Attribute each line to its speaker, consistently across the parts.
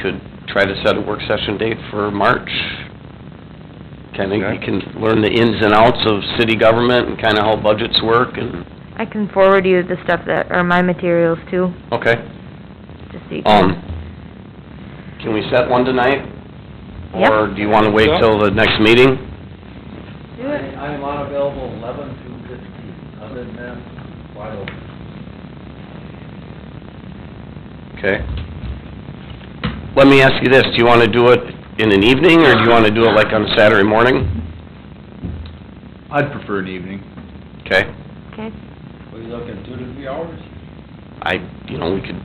Speaker 1: could try to set a work session date for March. Kinda, you
Speaker 2: Okay.
Speaker 1: can learn the ins and outs of city government and kinda how budgets work and,
Speaker 3: I can forward you the stuff that, or my materials too,
Speaker 1: okay.
Speaker 3: just so you
Speaker 1: Um,
Speaker 3: can.
Speaker 1: can we set one tonight?
Speaker 3: Yep.
Speaker 1: Or do you wanna wait till the next meeting?
Speaker 3: Do it.
Speaker 4: I am unavailable eleven to fifteen, other than that, wide open.
Speaker 1: Okay. Let me ask you this, do you wanna do it in an evening, or do you wanna do it like on Saturday morning?
Speaker 2: I'd prefer an evening.
Speaker 1: Okay,
Speaker 3: Okay,
Speaker 4: What are you looking, two to three hours?
Speaker 1: I, you know, we could,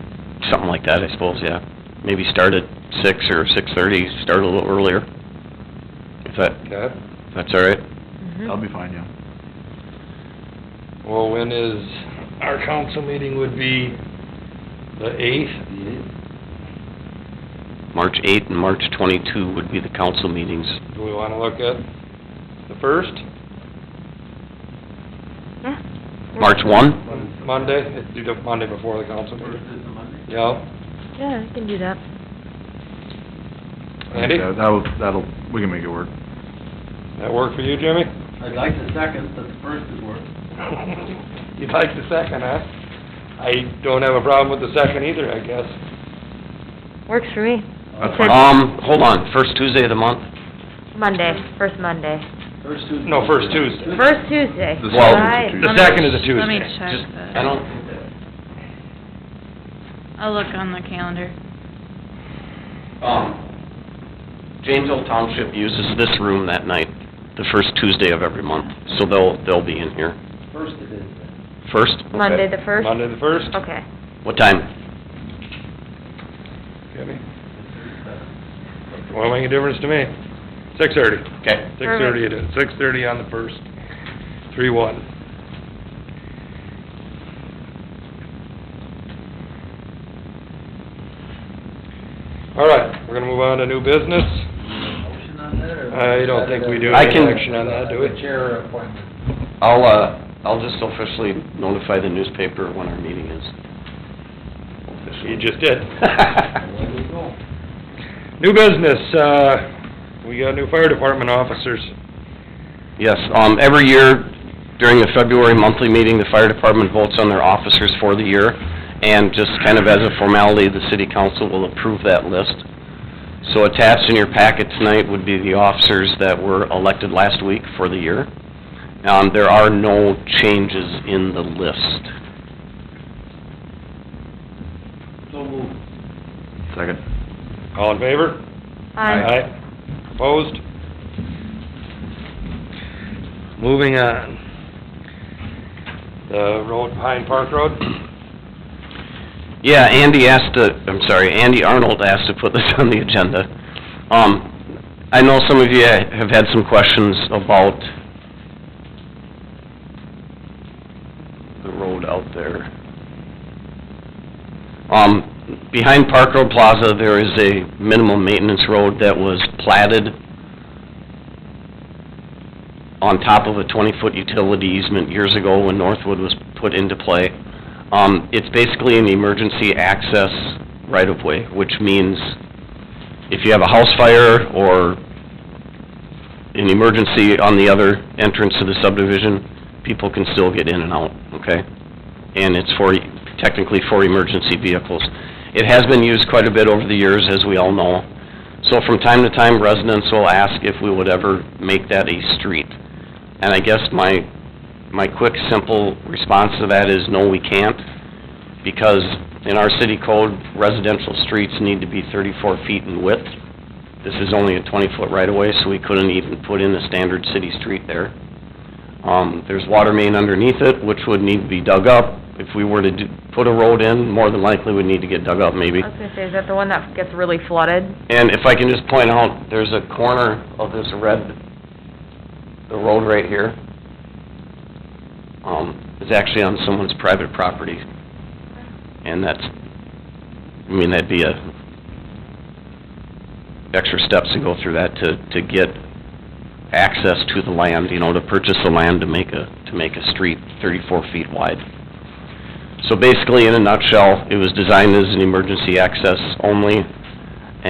Speaker 1: something like that, I suppose, yeah. Maybe start at six or six-thirty, start a little earlier. If that,
Speaker 5: Okay,
Speaker 1: if that's all right.
Speaker 3: mhm.
Speaker 2: That'll be fine, yeah.
Speaker 5: well, when is, our council meeting would be the eighth?
Speaker 4: Mm-hmm.
Speaker 1: March eighth and March twenty-two would be the council meetings.
Speaker 5: Do we wanna look at the first,
Speaker 3: Yeah.
Speaker 1: March one?
Speaker 5: Monday, do the Monday before the council
Speaker 4: First
Speaker 5: meeting?
Speaker 4: is the Monday?
Speaker 5: Yeah,
Speaker 3: Yeah, I can do that.
Speaker 5: Andy?
Speaker 2: Yeah, uh, That'll, that'll, we can make it work.
Speaker 5: that work for you, Jimmy?
Speaker 4: I'd like the second, but the first is work.
Speaker 5: You'd like the second, huh? I don't have a problem with the second either, I guess.
Speaker 3: Works for me.
Speaker 2: That's
Speaker 3: fine.
Speaker 1: Um, hold on, first Tuesday of the month?
Speaker 3: Monday, first Monday.
Speaker 4: First Tuesday.
Speaker 5: No, first Tuesday.
Speaker 3: First Tuesday.
Speaker 2: The
Speaker 1: Well,
Speaker 3: Right.
Speaker 2: second is
Speaker 5: The second is a Tuesday.
Speaker 6: Let me check
Speaker 1: Just- I
Speaker 6: the,
Speaker 1: don't,
Speaker 6: I'll look on the calendar.
Speaker 1: Um, James Old Township uses this room that night, the first Tuesday of every month, so they'll, they'll be in here.
Speaker 4: First it is then.
Speaker 1: First? Okay.
Speaker 3: Monday the first?
Speaker 5: Monday the first,
Speaker 3: Okay.
Speaker 1: What time?
Speaker 5: Jimmy?
Speaker 4: It's the second.
Speaker 5: Won't make a difference to me. Six thirty.
Speaker 1: Okay.
Speaker 5: Six thirty it is, six thirty on the first, three one. All right, we're gonna move on to new business.
Speaker 4: Motion on that, or?
Speaker 5: I don't think we do
Speaker 1: I
Speaker 5: any
Speaker 1: can-
Speaker 5: action on that, do we?
Speaker 4: Chair appointment.
Speaker 1: I'll, uh, I'll just officially notify the newspaper when our meeting is. Officially.
Speaker 5: You just did.
Speaker 4: There we go.
Speaker 5: New business, uh, we got new fire department officers.
Speaker 1: Yes, um, every year during the February monthly meeting, the fire department votes on their officers for the year. And just kind of as a formality, the city council will approve that list. So attached in your packet tonight would be the officers that were elected last week for the year. Um, there are no changes in the list.
Speaker 4: So moved.
Speaker 2: Second.
Speaker 5: All in favor?
Speaker 3: Aye.
Speaker 5: Aye. Opposed? Moving on. The road, Pine Park Road?
Speaker 1: Yeah, Andy asked to, I'm sorry, Andy Arnold asked to put this on the agenda. Um, I know some of you have had some questions about the road out there. Um, behind Park Road Plaza, there is a minimum maintenance road that was platted on top of a twenty-foot utility easement years ago when Northwood was put into play. Um, it's basically an emergency access right-of-way, which means if you have a house fire or an emergency on the other entrance to the subdivision, people can still get in and out, okay? And it's for, technically for emergency vehicles. It has been used quite a bit over the years, as we all know. So from time to time, residents will ask if we would ever make that a street. And I guess my my quick, simple response to that is, no, we can't, because in our city code, residential streets need to be thirty-four feet in width. This is only a twenty-foot right-of-way, so we couldn't even put in a standard city street there. Um, there's water main underneath it, which would need to be dug up. If we were to do, put a road in, more than likely would need to get dug up,
Speaker 3: I
Speaker 1: maybe.
Speaker 3: was gonna say, is that the one that gets really flooded?
Speaker 1: And if I can just point out, there's a corner of this red, the road right here, um, is actually on someone's private property. And that's, I mean, that'd be a, extra steps to go through that to, to get access to the land, you know, to purchase the land to make a, to make a street thirty-four feet wide. So basically, in a nutshell, it was designed as an emergency access only